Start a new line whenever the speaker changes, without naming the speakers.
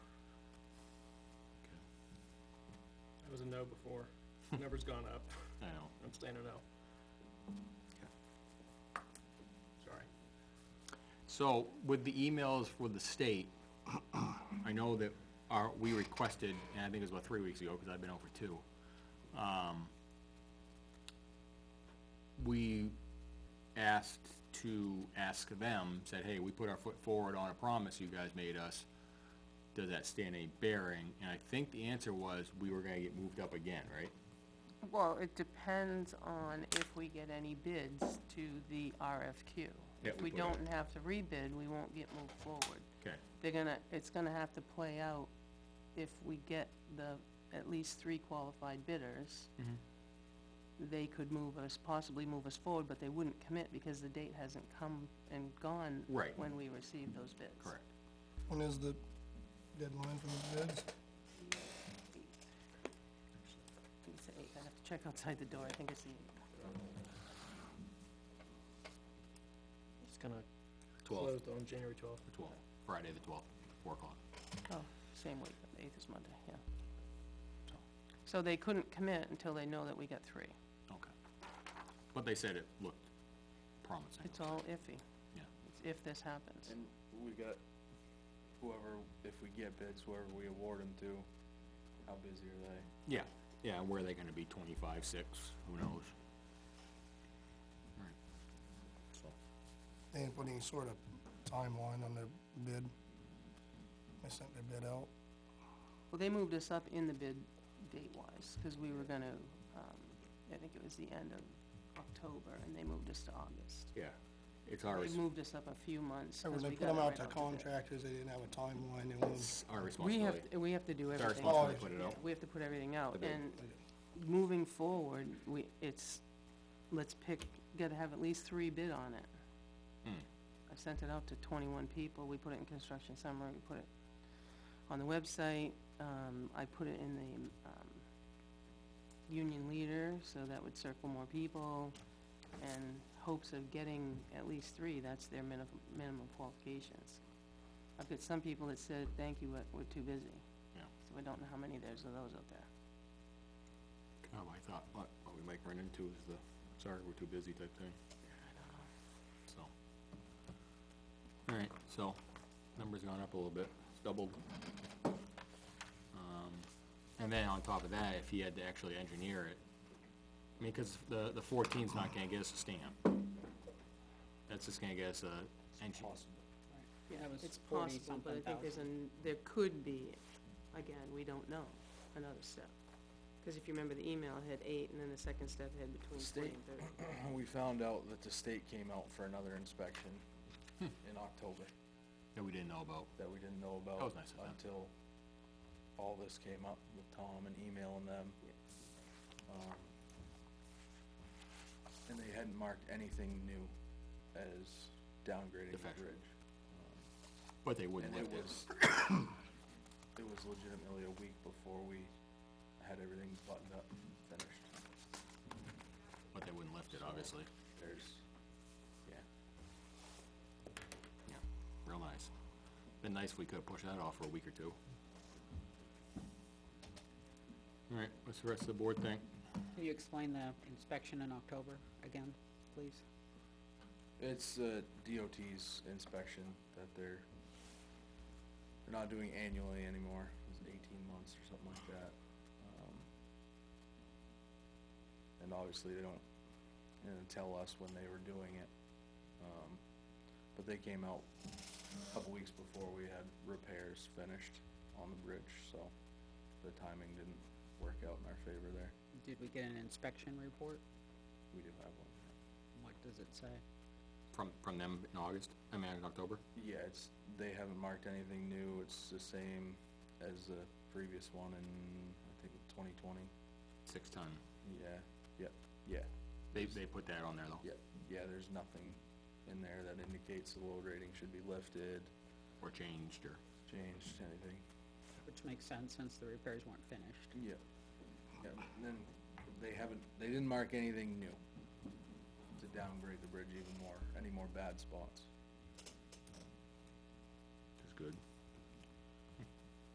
no before. Number's gone up.
I know.
I'm staying a no. Sorry.
So with the emails with the state, I know that our, we requested, and I think it was about three weeks ago, because I've been over two. um, We asked to ask them, said, hey, we put our foot forward on a promise you guys made us. Does that stand any bearing? And I think the answer was, we were gonna get moved up again, right?
Well, it depends on if we get any bids to the RFQ.
Yeah,
If
we
we
put out-
don't have to rebid, we won't get moved forward.
Okay,
They're gonna, it's gonna have to play out if we get the, at least three qualified bidders.
Mm-hmm.
They could move us, possibly move us forward, but they wouldn't commit because the date hasn't come and gone
Right.
when we receive those bids.
correct.
When is the deadline for the bids?
I think it's the eighth. I have to check outside the door, I think it's the eighth.
It's gonna
Twelve,
close on January twelfth.
the twelfth, Friday the twelfth, four o'clock.
Oh, same week, the eighth is Monday, yeah. So they couldn't commit until they know that we got three.
Okay. But they said it looked promising.
It's all iffy,
Yeah,
It's if this happens.
And we got whoever, if we get bids, whoever we award them to, how busy are they?
yeah, yeah, and where are they gonna be, twenty-five, six, who knows? Right. So,
They didn't put any sort of timeline on their bid. They sent their bid out.
Well, they moved us up in the bid date-wise, because we were gonna, um, I think it was the end of October, and they moved us to August.
Yeah, it's our, res-
They moved us up a few months,
So when
because
Oh, they
we
put
got it
them out
right
to
out to bid.
contractors, they didn't have a timeline, they wanted,
it's our
We
responsibility.
have, to- we have to do
It's our
everything.
responsibility to
Oh,
put it
Yeah,
out.
we have to put everything out,
The bid.
and moving forward, we, it's, let's pick, gotta have at least three bid on it. I sent it out to twenty-one people, we put it in construction summary, we put it on the website, um, I put it in the, um, union leader, so that would circle more people, and hopes of getting at least three, that's their minimum, minimum qualifications. I've got some people that said, thank you, but we're too busy.
Yeah.
So I don't know how many there's of those out there.
Oh, I thought, what, what we might run into is the, sorry, we're too busy type thing. So. All right, so, number's gone up a little bit, it's doubled. Um, and then on top of that, if he had to actually engineer it, I mean, cause the, the fourteen's not gonna get us a stamp. That's just gonna get us a engine.
Yeah,
That was
it's
40
possible, but I
something
think there's an, there could be, again, we don't know, another step. Cause if you remember, the email had eight, and then the second step had between forty and thirty.
We found out that the state came out for another inspection
Hmm.
in October
That we didn't know about.
that we didn't know about.
That was nice of them.
Until all this came up with Tom and emailing them. Um, And they hadn't marked anything new as downgrading the
Defective.
bridge.
But they wouldn't
And
let
it
us.
was, it was legitimately a week before we had everything buttoned up, and finished.
But they wouldn't lift it, obviously.
There's, yeah.
Yeah, real nice. Been nice if we could've pushed that off for a week or two. Alright, what's the rest of the board think?
Can you explain the inspection in October again, please?
It's uh, DOT's inspection that they're, they're not doing annually anymore. It's eighteen months or something like that. Um, And obviously, they don't, you know, tell us when they were doing it. Um, But they came out a couple weeks before we had repairs finished on the bridge, so the timing didn't work out in our favor there.
Did we get an inspection report?
We do have one.
What does it say?
From, from them in August, I mean, in October?
Yeah, it's, they haven't marked anything new, it's the same as the previous one in, I think, twenty twenty,
Six ton.
yeah, yep, yeah,
They, they put that on there though.
yep, yeah, there's nothing in there that indicates the load rating should be lifted,
Or changed, or,
changed, anything,
Which makes sense since the repairs weren't finished.
yep, yep, and then they haven't, they didn't mark anything new to downgrade the bridge even more, any more bad spots.